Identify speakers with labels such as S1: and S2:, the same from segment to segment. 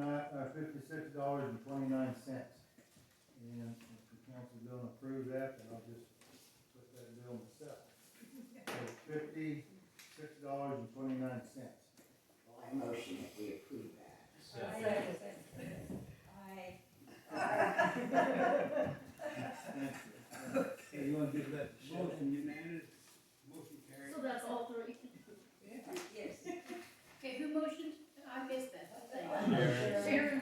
S1: uh, fifty-six dollars and twenty-nine cents.
S2: Well, I motion that we approve that.
S3: Aye.
S4: Hey, you wanna give that to Shelley?
S5: Motion unanimous, motion carried.
S6: So that's all three.
S3: Yes.
S6: Okay, who motioned? I missed that whole thing.
S4: Sharon.
S6: Sharon.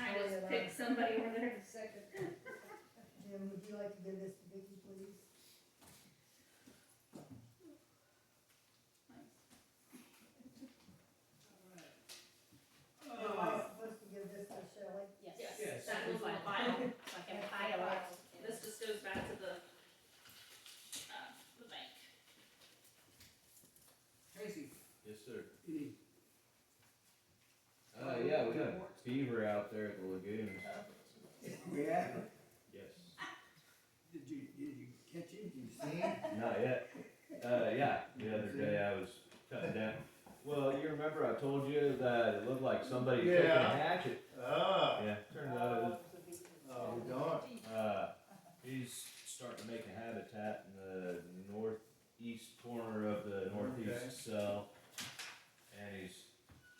S6: I just picked somebody over there.
S3: Second.
S7: Jim, would you like to give this to Vicky, please? Am I supposed to give this to Shelley?
S6: Yes, that was my file, so I can file it. This just goes back to the, uh, the bank.
S5: Tracy,
S4: Yes, sir.
S5: any?
S8: Uh, yeah, we got a fever out there at the lagoon.
S6: Uh,
S5: Yeah,
S8: Yes.
S5: did you, did you catch it, did you see it?
S8: Not yet. Uh, yeah, the other day I was cutting down. Well, you remember I told you that it looked like somebody took a
S1: Yeah.
S8: hatchet?
S1: Ah,
S8: Yeah, turned out it was,
S1: oh, we don't.
S8: uh, he's starting to make a habitat in the northeast corner of the
S1: Okay.
S8: northeast cell. And he's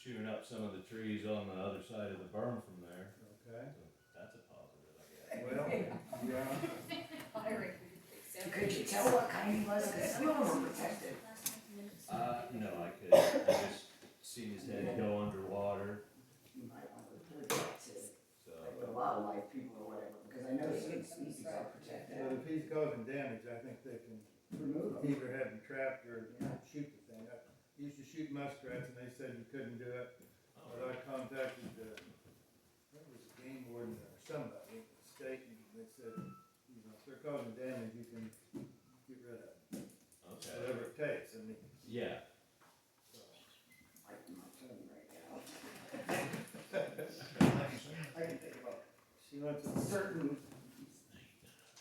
S8: chewing up some of the trees on the other side of the berm from there.
S1: Okay,
S8: So that's a positive, I guess.
S1: well, yeah,
S3: Hiring.
S2: Could you tell what kind he was, cause some of them were protected.
S8: Uh, no, I couldn't. I just seen his head go underwater,
S2: You might wanna report that to,
S8: so.
S2: like, the wildlife people or whatever, because I know certain species are
S1: but
S2: protected,
S1: if he's causing damage, I think they can
S2: remove them.
S1: either have him trapped or shoot the thing. I used to shoot muskrats and they said you couldn't do it, but I contacted the, I think it was the game warden or somebody at the state and they said, you know, if they're causing damage, you can get rid of it,
S8: Okay.
S1: whatever it takes, I mean.
S8: Yeah.
S2: Biting my tongue right now. I can think about
S1: She went to,
S2: certain.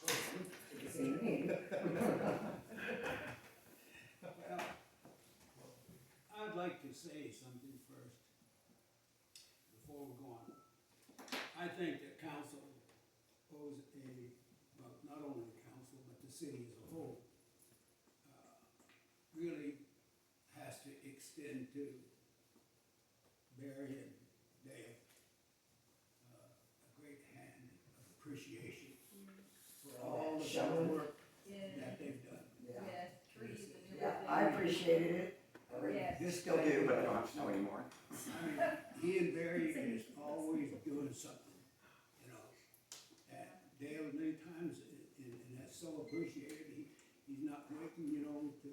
S2: person, if you see what I mean.
S5: Well, I'd like to say something first, before we go on. I think that council owes a, well, not only the council, but the city as a whole, uh, really has to extend to Barry and Dale uh, a great hand of appreciation for all the
S2: Showing.
S5: hard work
S3: Yeah,
S5: that they've done.
S2: Yeah,
S3: yeah, trees and.
S2: yeah, I appreciated it, I really
S3: Yes.
S5: This
S2: still do,
S5: guy-
S2: but I don't have snow anymore.
S5: I mean, he and Barry is always doing something, you know. And Dale, many times, and, and that's so appreciated, he, he's not waiting, you know, to,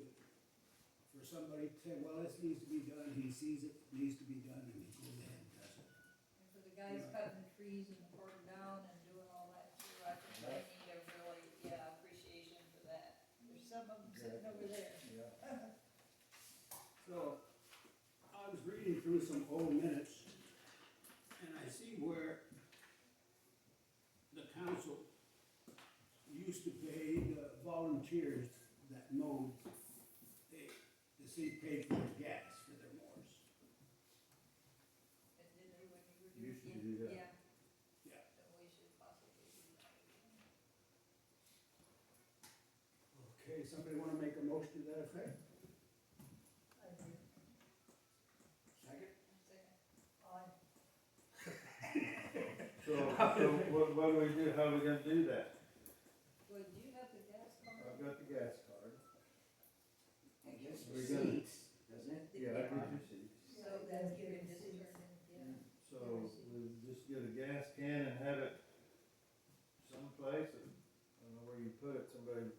S5: for somebody to say, well, this needs to be done, he sees it needs to be done, and he goes ahead and does it.
S3: For the guys cutting the trees and pouring down and doing all that too, I think they need a really, yeah, appreciation for that. There's some of them sitting over there.
S1: yeah.
S5: So, I was reading through some old minutes, and I see where the council used to pay the volunteers that mowed, they, the city paid for their gas for their mowers.
S3: And then they wouldn't even
S1: You should do that.
S3: Yeah.
S5: Yeah.
S3: So we should possibly do that.
S5: Okay, somebody wanna make a motion to that effect?
S7: I do.
S5: Second?
S3: Second.
S7: Aye.
S1: So, so what, what do we do, how are we gonna do that?
S3: Well, do you have the gas card?
S5: Uh,
S1: I've got the gas card.
S2: It gives
S1: We're good.
S2: receipts, doesn't it?
S1: Yeah, I did receive.
S3: So then you can just turn in, yeah.
S1: So we'll just get a gas can and have it someplace, and I don't know where you put it, somebody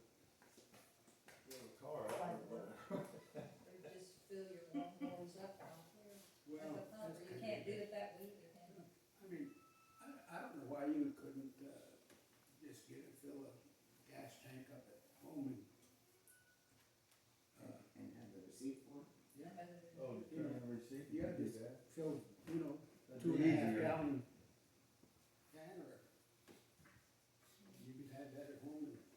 S1: fill a car out or whatever.
S3: Or just fill your long holes up down here.
S5: Well,
S3: That's a pump, or
S5: that's
S3: you
S5: kinda-
S3: can't do it that way either, can you?
S5: I mean, I, I don't know why you couldn't, uh, just get, a- fill a gas tank up at home and, uh,
S2: And have the receipt for it.
S5: yeah,
S3: Rather than-
S1: Oh, return and receipt, you
S5: Yeah,
S1: can do
S5: just-
S1: that.
S5: fill, you know,
S1: That'd
S5: two
S1: be
S5: and a half
S1: easier.
S5: gallon